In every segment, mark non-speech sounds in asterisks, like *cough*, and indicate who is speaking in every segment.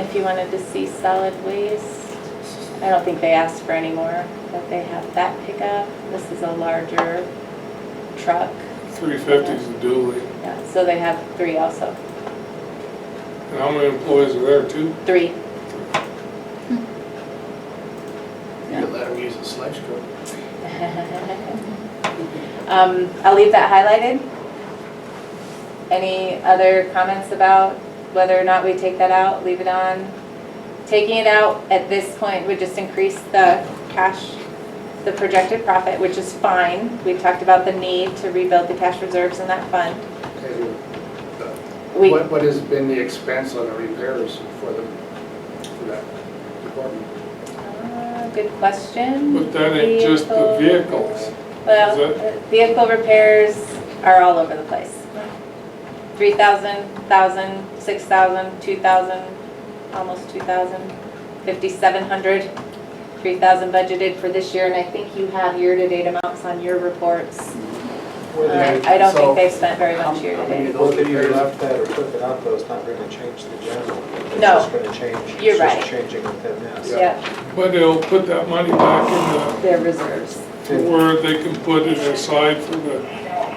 Speaker 1: if you wanted to see solid waste. I don't think they asked for any more, but they have that pickup. This is a larger truck.
Speaker 2: Three fifty's the dually.
Speaker 1: Yeah, so they have three also,
Speaker 2: And how many employees are there, two?
Speaker 1: three.
Speaker 3: You could let them use the sledge truck.
Speaker 1: *laughs* Um, I'll leave that highlighted. Any other comments about whether or not we take that out, leave it on? Taking it out at this point would just increase the cash, the projected profit, which is fine. We talked about the need to rebuild the cash reserves in that fund.
Speaker 3: Okay,
Speaker 1: We,
Speaker 3: What, what has been the expense on the repairs for the, for that department?
Speaker 1: Ah, good question.
Speaker 2: But that ain't just the vehicles.
Speaker 1: Well, uh,
Speaker 2: Is
Speaker 1: vehicle repairs are all over the place. Three thousand, thousand, six thousand, two thousand, almost two thousand, fifty-seven hundred, three thousand budgeted for this year, and I think you have year-to-date amounts on your reports. Uh, I don't think they've spent very much year-to-date.
Speaker 4: Both of you left that or took it out, though, it's not gonna change the general. It's
Speaker 1: No.
Speaker 4: just gonna change.
Speaker 1: You're
Speaker 4: it's
Speaker 1: right.
Speaker 4: just changing within
Speaker 5: um,
Speaker 4: this.
Speaker 1: Yeah,
Speaker 2: But it'll put that money back
Speaker 1: their reserves,
Speaker 2: in the, where they can put it aside for the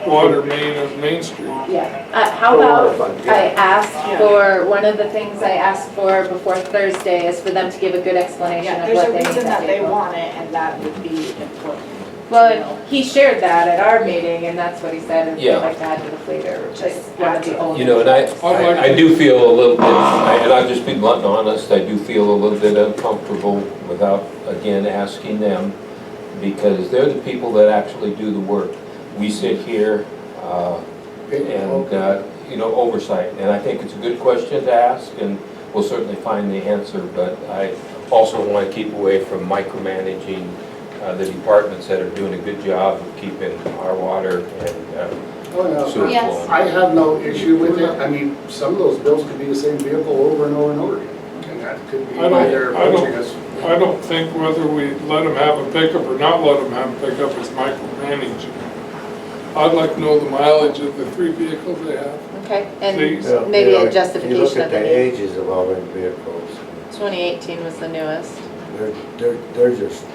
Speaker 2: water main of Main Street.
Speaker 1: yeah. Uh,
Speaker 4: For
Speaker 1: How
Speaker 4: water
Speaker 1: about,
Speaker 4: fund, yeah.
Speaker 1: I asked for, one of the things I asked for before Thursday is for them to give a good explanation
Speaker 6: Yeah,
Speaker 1: of
Speaker 6: there's
Speaker 1: what
Speaker 6: a
Speaker 1: they need that
Speaker 6: reason that they
Speaker 1: vehicle.
Speaker 6: want it, and that would be important.
Speaker 1: Well, and he shared that at our meeting, and that's what he said, and
Speaker 7: Yeah.
Speaker 1: we'd like to add to the fleet or just
Speaker 6: Just
Speaker 1: one
Speaker 6: add
Speaker 1: of the
Speaker 6: to it.
Speaker 1: old.
Speaker 7: You know, and I,
Speaker 2: I'd like-
Speaker 7: I- I do feel a little bit, I- and I'll just be blunt and honest, I do feel a little bit uncomfortable without, again, asking them, because they're the people that actually do the work. We sit here, uh, and, uh, you know, oversight, and I think it's a good question to ask, and we'll certainly find the answer, but I also want to keep away from micromanaging uh, the departments that are doing a good job of keeping our water and uh,
Speaker 3: Oh,
Speaker 7: sewer
Speaker 3: no,
Speaker 1: Yes.
Speaker 7: flowing.
Speaker 3: I have no issue with it, I mean, some of those bills could be the same vehicle over and over and over again, and that could be
Speaker 2: I don't-
Speaker 3: why they're
Speaker 2: I don't-
Speaker 3: approaching us.
Speaker 2: I don't think whether we let them have a pickup or not let them have a pickup is micromanaging. I'd like to know the mileage of the three vehicles they have,
Speaker 1: Okay,
Speaker 2: please.
Speaker 1: and maybe a justification of the need.
Speaker 5: ages of all them vehicles,
Speaker 1: 2018 was the newest.
Speaker 5: they're, they're, they're just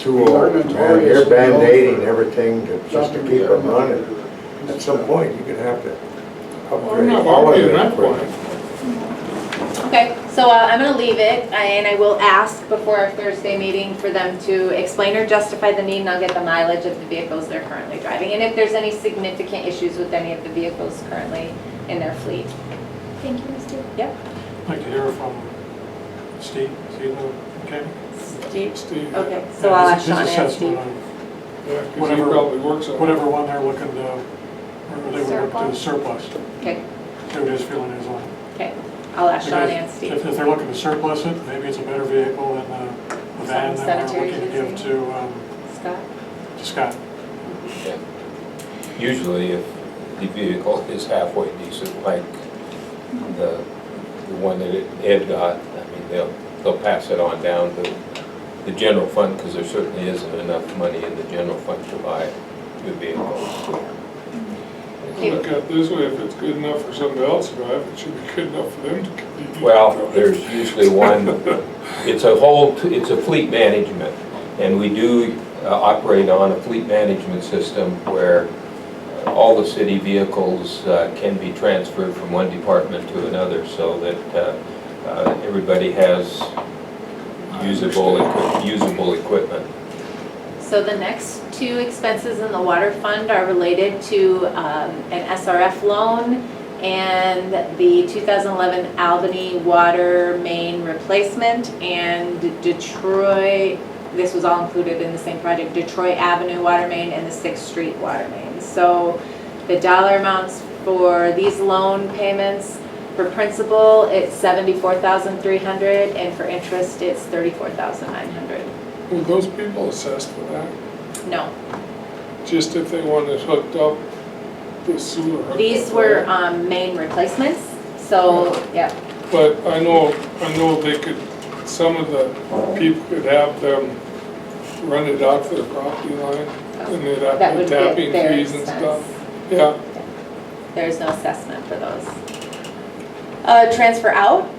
Speaker 5: too
Speaker 3: These are
Speaker 5: old, man.
Speaker 3: notorious
Speaker 5: You're band-aiding
Speaker 3: for-
Speaker 5: everything to- just to keep them running. At some point, you're gonna have to
Speaker 2: I'm
Speaker 5: upgrade
Speaker 2: not
Speaker 5: all of
Speaker 2: arguing
Speaker 5: it.
Speaker 2: that
Speaker 5: for-
Speaker 2: point.
Speaker 1: Okay, so uh, I'm gonna leave it, I- and I will ask before our Thursday meeting for them to explain or justify the need, and I'll get the mileage of the vehicles they're currently driving, and if there's any significant issues with any of the vehicles currently in their fleet.
Speaker 8: Thank you, Mr.
Speaker 9: I'd like to hear from Steve, Steve, okay?
Speaker 1: Steve?
Speaker 2: Steve,
Speaker 1: Okay, so I'll ask
Speaker 9: His- his
Speaker 1: Sean and
Speaker 9: assessment
Speaker 1: Steve.
Speaker 9: on
Speaker 2: yeah, 'cause he
Speaker 9: Whatever-
Speaker 2: probably works on it.
Speaker 9: Whatever uh, one they're looking to, or they would look to surplus,
Speaker 1: Okay,
Speaker 9: see what his feeling is on. it.
Speaker 1: okay, I'll ask Sean and
Speaker 9: Because
Speaker 1: Steve.
Speaker 9: If, if they're looking to surplus it, maybe it's a better vehicle than the the van
Speaker 1: Some
Speaker 9: that we're
Speaker 1: cemetery
Speaker 9: looking to give
Speaker 1: kids
Speaker 9: to, um,
Speaker 1: Scott?
Speaker 9: to Scott.
Speaker 7: Usually if the vehicle *laughs* is halfway decent, like the, the one that Ed got, I mean, they'll, they'll pass it on down to the general fund, because there certainly isn't enough money in the general fund to buy new vehicles.
Speaker 2: Look at it this way, if it's good enough for somebody else to drive, it should be good enough for them to continue. to
Speaker 7: Well,
Speaker 2: drive.
Speaker 7: there's usually one, it's a whole, it's a fleet management, and we do uh, operate on a fleet management system where all the city vehicles uh, can be transferred from one department to another, so that uh, uh, everybody has usable, equi- usable equipment.
Speaker 1: So the next two expenses in the water fund are related to um, an SRF loan and the 2011 Albany water main replacement and Detroit, this was all included in the same project, Detroit Avenue water main and the Sixth Street water main. So the dollar amounts for these loan payments, for principal, it's 74,300 and for interest, it's 34,900.
Speaker 2: Were those people assessed for that?
Speaker 1: No,
Speaker 2: Just if they wanted hooked up, the sewer hooked
Speaker 1: These
Speaker 2: up,
Speaker 1: were
Speaker 2: right?
Speaker 1: um, main replacements, so, yeah,
Speaker 2: But I know, I know they could, some of the people could have them run it out to the property line, and they'd have
Speaker 1: that
Speaker 2: the
Speaker 1: would be
Speaker 2: tapping
Speaker 1: their
Speaker 2: fees and
Speaker 1: expense.
Speaker 2: stuff. Yeah.
Speaker 1: There's no assessment for those. Uh, Transfer out,